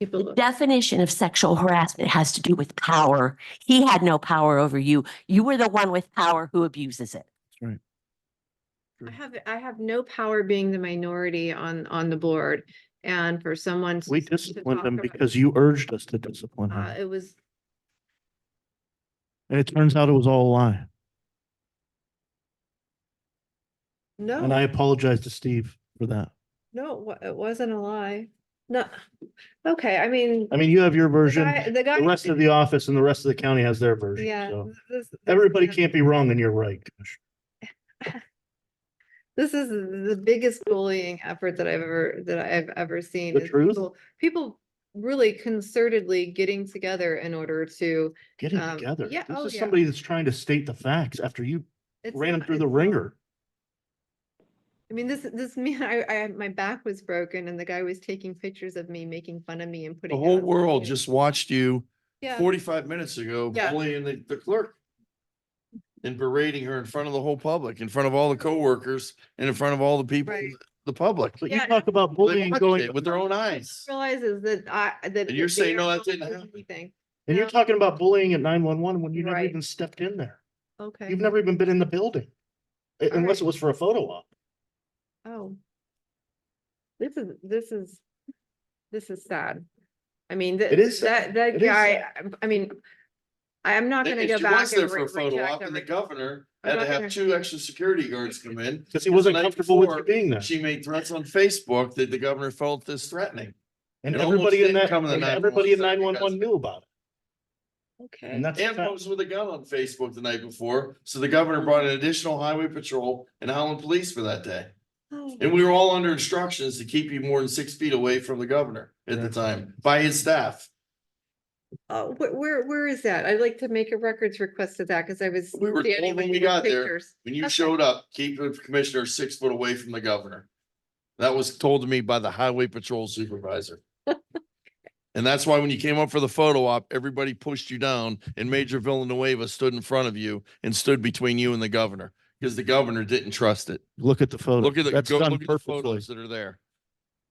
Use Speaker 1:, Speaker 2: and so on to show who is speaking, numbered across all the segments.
Speaker 1: People
Speaker 2: The
Speaker 1: look-
Speaker 2: definition of sexual harassment has to do with power. He had no power over you. You were the one with power who abuses it.
Speaker 3: Mm.
Speaker 1: I have, I have no power being the minority on, on the board and for someone.
Speaker 3: We
Speaker 1: to- to
Speaker 3: disciplined
Speaker 1: talk
Speaker 3: him
Speaker 1: about-
Speaker 3: because you urged us to discipline
Speaker 1: Uh,
Speaker 3: him.
Speaker 1: it was,
Speaker 3: And it turns out it was all a lie. And
Speaker 1: no,
Speaker 3: I apologize to Steve for that.
Speaker 1: no, it wa- it wasn't a lie. No, okay, I mean.
Speaker 3: I mean, you have your version,
Speaker 1: guy- The guy.
Speaker 3: the rest of the office and the rest of the county has their version.
Speaker 1: Yeah.
Speaker 3: So
Speaker 1: this- this-
Speaker 3: everybody
Speaker 1: yeah.
Speaker 3: can't be wrong and you're right.
Speaker 1: This is the biggest bullying effort that I've ever, that I've ever seen.
Speaker 3: The
Speaker 1: is
Speaker 3: truth?
Speaker 1: people- People really concertedly getting together in order to.
Speaker 3: Getting
Speaker 1: Um,
Speaker 3: together.
Speaker 1: yeah,
Speaker 3: This
Speaker 1: oh,
Speaker 3: is
Speaker 1: yeah.
Speaker 3: somebody that's trying to state the facts after you
Speaker 1: it's
Speaker 3: ran him
Speaker 1: not-
Speaker 3: through the
Speaker 1: it's-
Speaker 3: ringer.
Speaker 1: I mean, this, this man, I, I, my back was broken and the guy was taking pictures of me, making fun of me and
Speaker 4: The
Speaker 1: putting. it
Speaker 4: whole
Speaker 1: on social
Speaker 4: world
Speaker 1: media.
Speaker 4: just watched you
Speaker 1: Yeah.
Speaker 4: forty-five minutes ago
Speaker 1: Yeah.
Speaker 4: bullying the, the clerk. And berating her in front of the whole public, in front of all the coworkers and in front of all the people,
Speaker 1: Right.
Speaker 4: the public.
Speaker 3: But you
Speaker 1: Yeah.
Speaker 3: talk about
Speaker 4: They
Speaker 3: bullying
Speaker 4: watched
Speaker 3: going,
Speaker 4: it With their own eyes.
Speaker 1: Realizes that I, that.
Speaker 4: And you're
Speaker 1: that
Speaker 4: saying,
Speaker 1: they are
Speaker 4: "No, that
Speaker 1: not
Speaker 4: didn't
Speaker 1: doing
Speaker 4: happen."
Speaker 1: anything.
Speaker 3: and you're
Speaker 1: No.
Speaker 3: talking about bullying at nine one one when you never
Speaker 1: Right.
Speaker 3: even stepped in there.
Speaker 1: Okay.
Speaker 3: You've never even been in the building. Uh,
Speaker 1: All right.
Speaker 3: Unless it was for a photo op.
Speaker 1: Oh. This is, this is, this is sad. I mean, that,
Speaker 3: It is
Speaker 1: that,
Speaker 3: sad. It
Speaker 1: that
Speaker 3: is
Speaker 1: guy, I mean, I'm not
Speaker 4: They-
Speaker 1: gonna
Speaker 4: and
Speaker 1: go
Speaker 4: she was
Speaker 1: back
Speaker 4: there
Speaker 1: and
Speaker 4: for
Speaker 1: re-
Speaker 4: a photo op
Speaker 1: reject
Speaker 4: and the
Speaker 1: every.
Speaker 4: governor
Speaker 1: I'm
Speaker 4: had to
Speaker 1: not gonna-
Speaker 4: have two extra security guards come in.
Speaker 3: Because he
Speaker 4: Because
Speaker 3: wasn't
Speaker 4: the night
Speaker 3: comfortable with you
Speaker 4: before,
Speaker 3: being there.
Speaker 4: She made threats on Facebook that the governor felt is threatening.
Speaker 3: And
Speaker 4: it almost
Speaker 3: everybody in
Speaker 4: didn't
Speaker 3: that,
Speaker 4: come in the
Speaker 3: and everybody in nine
Speaker 4: 911
Speaker 3: one one knew about it.
Speaker 1: Okay,
Speaker 3: And that's.
Speaker 4: And
Speaker 3: the fact.
Speaker 4: posed with a gun on Facebook the night before. So the governor brought an additional highway patrol and Howland police for that day.
Speaker 1: Oh,
Speaker 4: And we were all under instructions to keep you more than six feet away from the governor at the time by his staff.
Speaker 1: uh, where, where, where is that? I'd like to make a records request of that, cause I was.
Speaker 4: We were
Speaker 1: standing
Speaker 4: told when
Speaker 1: with
Speaker 4: we
Speaker 1: your
Speaker 4: got there,
Speaker 1: pictures.
Speaker 4: When you
Speaker 1: Okay.
Speaker 4: showed up, keep the commissioner six foot away from the governor. That was told to me by the highway patrol supervisor. And that's why when you came up for the photo op, everybody pushed you down and Major Villanueva stood in front of you and stood between you and the governor. Because the governor didn't trust it.
Speaker 3: Look at the photo.
Speaker 4: Look at the,
Speaker 3: That's
Speaker 4: go
Speaker 3: done
Speaker 4: look at the
Speaker 3: purposely.
Speaker 4: photos that are there.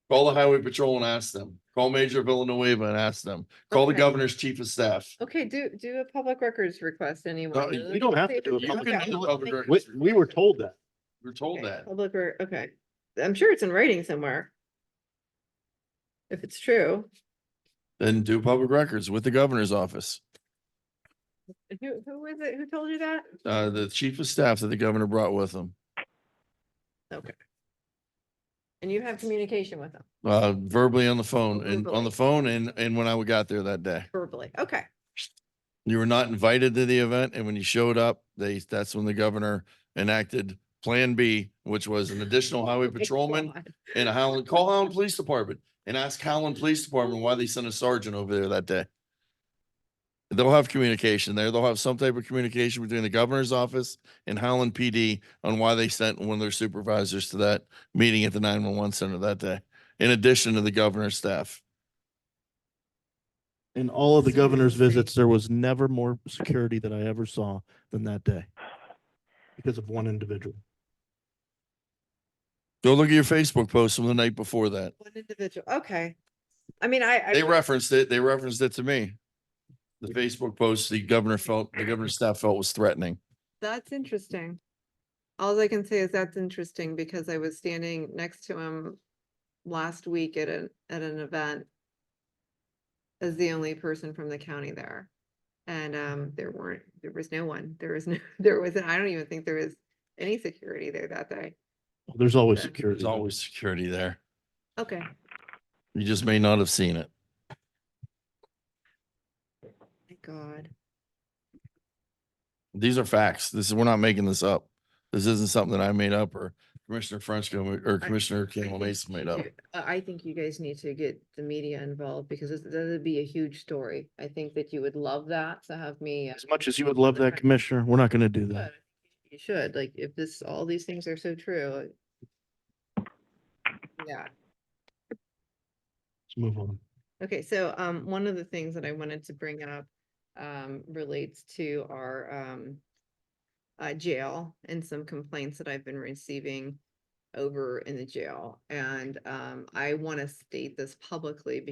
Speaker 4: Call the highway patrol and ask them. Call Major Villanueva and ask them. Call the
Speaker 1: Okay.
Speaker 4: governor's chief of staff.
Speaker 1: Okay, do, do a public records request anyone.
Speaker 4: you-
Speaker 1: uh,
Speaker 3: you don't have to
Speaker 1: say
Speaker 3: do a
Speaker 1: that-
Speaker 3: public
Speaker 1: okay,
Speaker 4: records
Speaker 1: I'll
Speaker 4: public
Speaker 1: take-
Speaker 4: record.
Speaker 3: We, we were told that.
Speaker 4: We're told
Speaker 1: okay,
Speaker 4: that.
Speaker 1: Public, re- okay, I'm sure it's in writing somewhere. If it's true.
Speaker 4: Then do public records with the governor's office.
Speaker 1: Who, who was it? Who told you that?
Speaker 4: Uh, the chief of staff that the governor brought with him.
Speaker 1: And you have communication with them
Speaker 4: Uh, verbally on the phone and on
Speaker 1: Verbally.
Speaker 4: the phone and, and when I got there that day.
Speaker 1: verbally. Okay.
Speaker 4: You were not invited to the event and when you showed up, they, that's when the governor enacted Plan B, which was an additional highway patrolman and a Howland, call Howland Police Department and ask Howland Police Department why they sent a sergeant over there that day. They'll have communication there. They'll have some type of communication between the governor's office and Howland PD on why they sent one of their supervisors to that meeting at the nine one one center that day, in addition to the governor's staff.
Speaker 3: In all of the
Speaker 1: So you're
Speaker 3: governor's
Speaker 1: saying-
Speaker 3: visits, there was never more security that I ever saw than that day. Because of one individual.
Speaker 4: Go look at your Facebook post from the night before that.
Speaker 1: One individual. Okay. I mean, I, I,
Speaker 4: They referenced it. They referenced it to me. The Facebook post the governor felt, the governor's staff felt was threatening.
Speaker 1: that's interesting. All I can say is that's interesting because I was standing next to him last week at an, at an event as the only person from the county there. And, um, there weren't, there was no one, there was no, there wasn't, I don't even think there was any security there that day.
Speaker 3: There's always
Speaker 1: Okay.
Speaker 3: security.
Speaker 4: There's always security there.
Speaker 1: Okay.
Speaker 4: You just may not have seen it.
Speaker 1: My God.
Speaker 4: These are facts. This is, we're not making this up. This isn't something that I made up or Commissioner Frenchco or Commissioner
Speaker 1: I
Speaker 4: Campbell
Speaker 1: think
Speaker 4: Mason made up.
Speaker 1: you- uh, I I think you guys need to get the media involved because this- that'd be a huge story. I think that you would love that to have me. uh,
Speaker 3: As much as you would love that,
Speaker 1: Okay.
Speaker 3: Commissioner, we're not gonna do
Speaker 1: but I
Speaker 3: that.
Speaker 1: think You should, like, if this, all these things are so true. Yeah,
Speaker 3: Let's move on.
Speaker 1: okay, so um, one of the things that I wanted to bring up um relates to our um uh jail and some complaints that I've been receiving over in the jail. And um I want to state this publicly